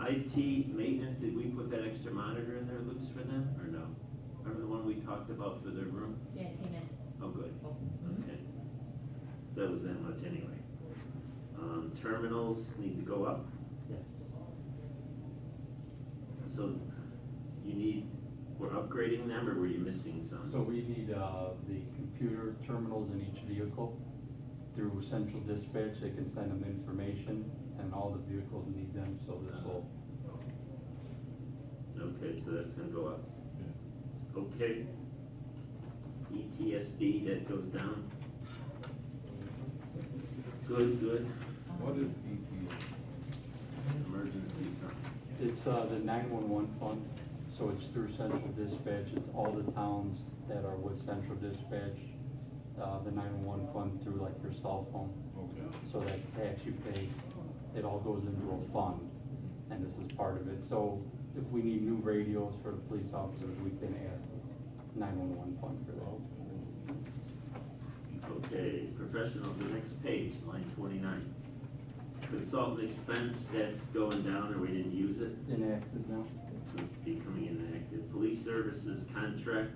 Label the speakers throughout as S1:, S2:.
S1: IT maintenance, did we put that extra monitor in there, Luke's for them, or no? Remember the one we talked about for their room?
S2: Yeah, it came in.
S1: Oh, good, okay. That was that much anyway. Um, terminals need to go up,
S3: Yes.
S1: so you need, we're upgrading them, or were you missing some?
S3: So we need, uh, the computer terminals in each vehicle. Through central dispatch, they can send them information, and all the vehicles need them, so this will,
S1: Okay, so that's gonna go up. Okay. E ETSB, that goes down. Good, good,
S4: What is E EPA?
S1: emergency something.
S3: it's, uh, the nine-one-one fund, so it's through central dispatch, it's all the towns that are with central dispatch, uh, the nine-one-one fund through like your cell phone.
S4: Okay.
S3: So that tax you pay, it all goes into a fund, and this is part of it. So if we need new radios for the police officers, we can ask nine-one-one fund for that.
S1: Okay, professional, the next page, line twenty-nine. Consultant expense, that's going down, or we didn't use it,
S3: Enacted now?
S1: it's becoming inactive. Police services contract,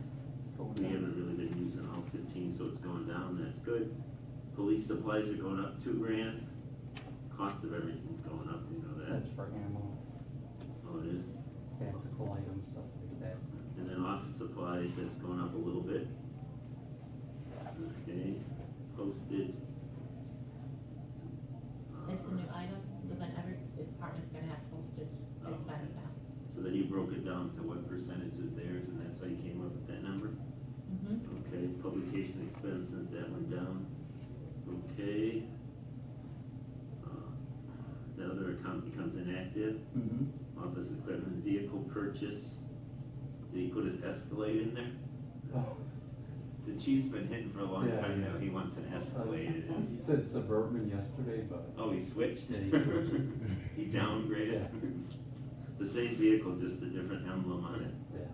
S1: we haven't really been using all fifteen, so it's going down, that's good. Police supplies are going up two grand, cost of everything's going up, you know that,
S3: That's for ammo,
S1: oh, it is.
S3: tactical items, stuff like that.
S1: And then office supplies, that's going up a little bit. Okay, postage.
S2: It's a new
S1: Uh,
S2: item, so then every department's gonna have postage
S1: Oh, okay.
S2: expense now.
S1: So then you broke it down to what percentage is theirs, and that's how you came up with that number?
S2: Mm-hmm.
S1: Okay, publication expenses, that went down. Okay. Uh, The other account becomes inactive,
S3: Mm-hmm.
S1: office equipment, vehicle purchase. Did he put his Escalade in there? The chief's been hitting for a long
S3: Yeah, Oh,
S1: time
S3: yeah.
S1: now, he wants an Escalade.
S3: He said suburban yesterday, but
S1: Oh, he switched?
S3: Yeah, he switched.
S1: He downgraded? The same vehicle, just a different emblem on it.
S3: yeah,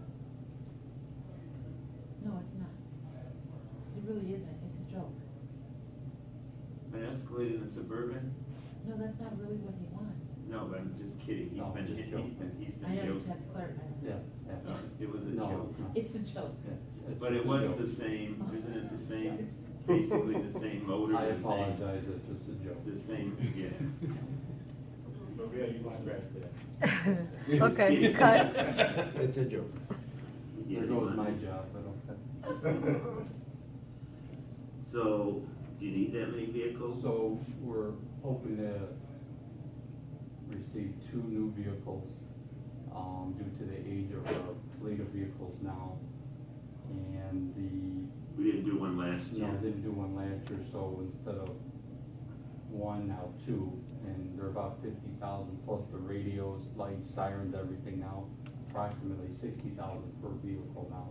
S2: No, it's not. It really isn't, it's a joke.
S1: An Escalade in a Suburban?
S2: No, that's not really what he wants.
S1: No, but I'm just kidding. He's
S3: No,
S1: been,
S3: just
S1: he's
S3: joking.
S1: been, he's been
S2: I know you
S1: joking.
S2: have clerk, I know.
S3: yeah, yeah.
S1: Uh, It was a
S3: No,
S1: joke.
S3: no,
S2: It's a joke.
S3: yeah, it's
S1: But it
S3: just a
S1: was
S3: joke.
S1: the same, isn't it the same,
S2: Yes.
S1: basically the same motor,
S3: I
S1: the same,
S3: apologize, it's just a joke.
S1: the same, yeah.
S5: But yeah, you might scratch that.
S6: Okay, cut.
S5: It's a joke.
S1: Yeah,
S3: There
S1: you want-
S3: goes my job, I don't.
S1: So, do you need that many vehicles?
S3: So we're hoping to receive two new vehicles, um, due to the age of our fleet of vehicles now. And the,
S1: We didn't do one last
S3: you
S1: year.
S3: know, didn't do one last year, so instead of one, now two. And they're about fifty thousand plus the radios, lights, sirens, everything now, approximately sixty thousand per vehicle now.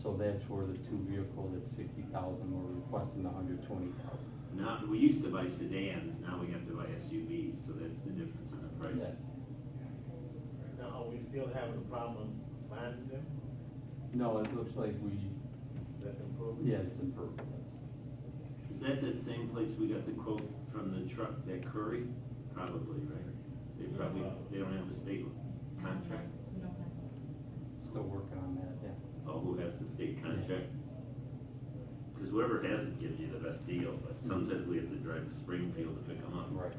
S3: So that's where the two vehicles at sixty thousand, we're requesting the hundred twenty thousand.
S1: Now, we used to buy sedans, now we have to buy SUVs, so that's the difference in the price.
S5: Now, are we still having a problem finding them?
S3: No, it looks like we,
S5: That's improving?
S3: yeah, it's improved, yes.
S1: Is that that same place we got the quote from the truck, that Curry? Probably, right? They probably, they don't have the state contract.
S2: We don't have.
S3: Still working on that, yeah.
S1: Oh, who has the state contract? Because whoever has it gives you the best deal, but sometimes we have to drive to Springfield to pick them up.
S3: Right.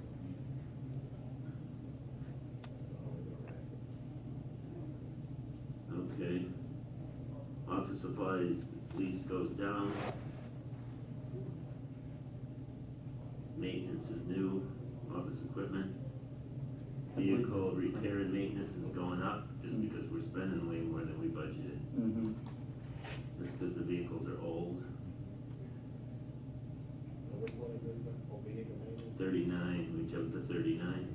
S1: Okay. Office supplies, lease goes down. Maintenance is new, office equipment. Vehicle repair and maintenance is going up, just because we're spending way more than we budgeted.
S3: Mm-hmm.
S1: That's because the vehicles are old,
S5: Now, Which one is this one? Oh, vehicle maintenance?
S1: thirty-nine, we jumped to thirty-nine.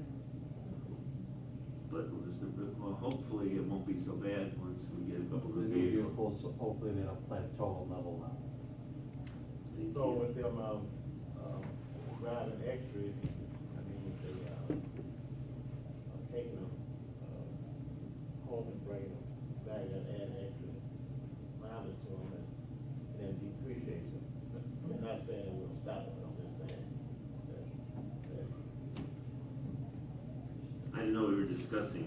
S1: But we'll just- well, hopefully it won't be so bad once we get a couple
S3: The
S1: of
S3: new
S1: vehicles.
S3: vehicles, hopefully they'll plateau level out.
S5: So with them, um, um, riding extras, I mean, if they, uh, are taking them, uh, home and bringing them back and adding extra mileage to them and and then depreciate them. I'm not saying it will stop them, I'm just saying that, that
S1: I know we were discussing